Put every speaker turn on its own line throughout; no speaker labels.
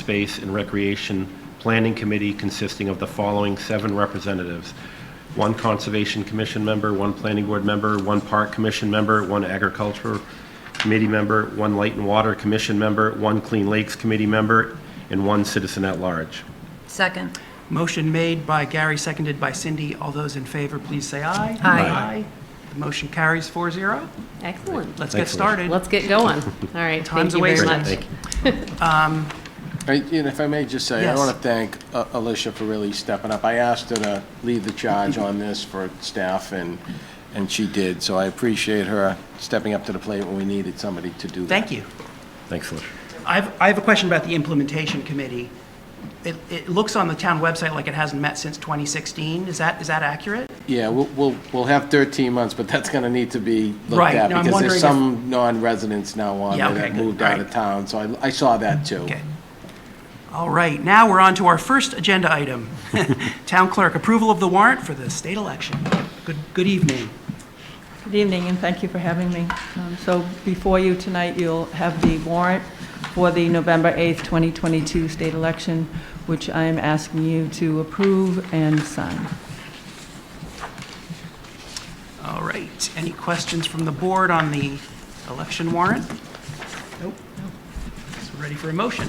Space and Recreation Planning Committee consisting of the following seven representatives: one Conservation Commission member, one Planning Board member, one Park Commission member, one Agriculture Committee member, one Light and Water Commission member, one Clean Lakes Committee member, and one citizen at large.
Second.
Motion made by Gary, seconded by Cindy. All those in favor, please say aye.
Aye.
The motion carries 4-0.
Excellent.
Let's get
Excellent.
started.
Let's get going. All right, thank
Time's
you
a
very
waste.
much.
Thank you.
I- And if I may just say, I
Yes.
want to thank uh, Alicia for really stepping up. I asked her to lead the charge on this for staff, and, and she did. So I appreciate her stepping up to the plate when we needed somebody to do that.
Thank you.
Thanks, Alicia.
I've, I have a question about the implementation committee. It, it looks on the town website like it hasn't met since 2016. Is that, is that accurate?
Yeah, we'll, we'll, we'll have 13 months, but that's going to need to be looked
Right,
at.
no, I'm
Because
wondering
there's
if-
some non-residents now on
Yeah,
there
okay,
that
good,
moved out of
right.
town, so I, I saw that too.
Okay. All right, now we're on to our first agenda item. Town clerk, approval of the warrant for the state election. Good, good evening.
Good evening, and thank you for having me. Um, So before you tonight, you'll have the warrant for the November 8th, 2022 state election, which I am asking you to approve and sign.
All right, any questions from the board on the election warrant? Nope. So ready for a motion?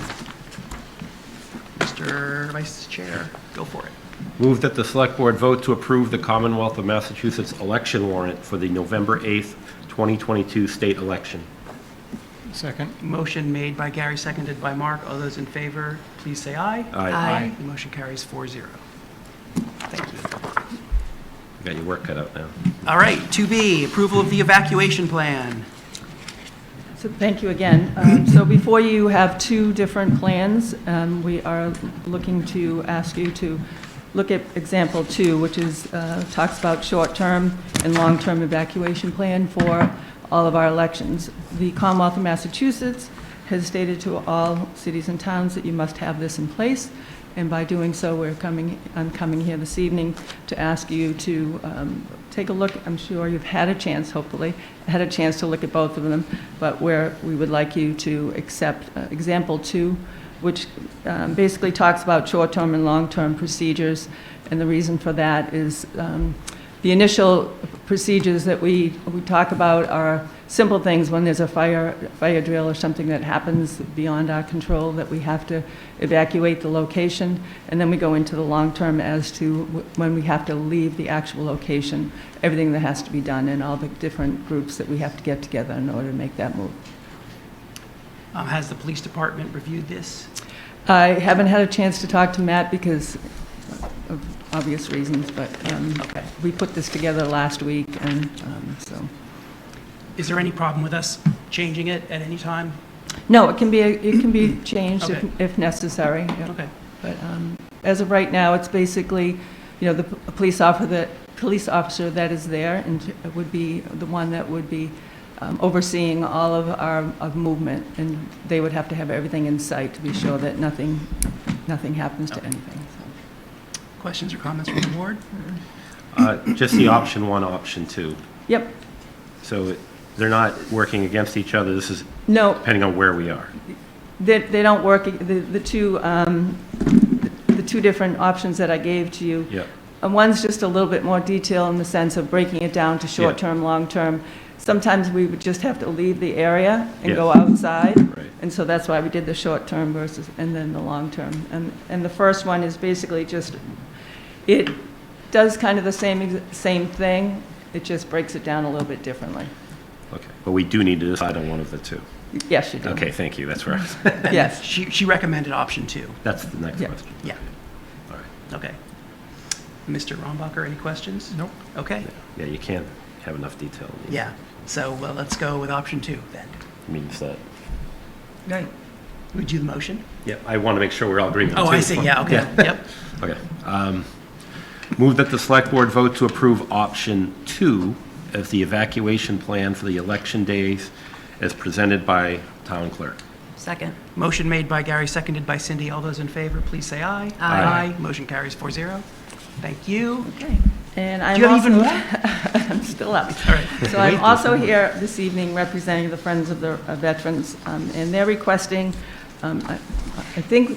Mr. Vice Chair, go for it.
Move that the Select Board vote to approve the Commonwealth of Massachusetts election warrant for the November 8th, 2022 state election.
Second.
Motion made by Gary, seconded by Mark. All those in favor, please say aye.
Aye.
Aye.
The motion carries 4-0. Thank you.
You Got your work cut out now.
All right, 2B, approval of the evacuation plan.
So thank you again. Um, So before you have two different plans, um, we are looking to ask you to look at example two, which is, uh, talks about short-term and long-term evacuation plan for all of our elections. The Commonwealth of Massachusetts has stated to all cities and towns that you must have this in place, and by doing so, we're coming, I'm coming here this evening to ask you to um, take a look, I'm sure you've had a chance, hopefully, had a chance to look at both of them, but where we would like you to accept uh, example two, which um, basically talks about short-term and long-term procedures, and the reason for that is um, the initial procedures that we, we talk about are simple things when there's a fire, fire drill or something that happens beyond our control that we have to evacuate the location. And then we go into the long term as to wh- when we have to leave the actual location, everything that has to be done and all the different groups that we have to get together in order to make that move.
Um, Has the police department reviewed this?
I haven't had a chance to talk to Matt because of obvious reasons, but um,
Okay.
we put this together last week and um, so.
Is there any problem with us changing it at any time?
No, it can be, it can be changed
Okay.
if if necessary. yeah.
Okay.
But um, as of right now, it's basically, you know, the p- police officer, the police officer that is there and would be the one that would be um, overseeing all of our of movement, and they would have to have everything in sight to be sure that nothing, nothing happens to anything. so.
Questions or comments from the board?
Uh, Just the option one, option two.
Yep,
So it- they're not working against each other, this is
no,
depending on where we are.
They, they don't work, e, the, the two, um, the the two different options that I gave to you.
Yeah.
And one's just a little bit more detail in the sense of breaking it down to short-term, long-term. Sometimes we would just have to leave the area and go
Yeah.
outside.
Right.
And so that's why we did the short-term versus, and then the long-term. And, and the first one is basically just, it does kind of the same, ex- same thing, it just breaks it down a little bit differently.
Okay. But we do need to decide on one of the two.
Yes, you do.
Okay, thank you, that's where, I was-
Yes.
She, she recommended option two.
that's the next
Yeah.
question.
Yeah,
All right.
okay. Mr. Rombacher, any questions?
Nope.
Okay,
Yeah, you can't have enough detail. in these.
yeah. So well, let's go with option two then.
Means that,
Right. Would you the motion?
yeah, I want to make sure we're all agreeing on
Oh,
two.
I see, yeah, okay, yep.
Okay. um, Move that the Select Board vote to approve option two as the evacuation plan for the election days as presented by town clerk.
Second.
Motion made by Gary, seconded by Cindy. All those in favor, please say aye.
Aye.
Motion carries 4-0. Thank you.
Okay, and I'm
Do you have even
also-
more?
I'm still up.
All right.
So I'm also here this evening representing the Friends of the uh, Veterans, um, and they're requesting, um, I I think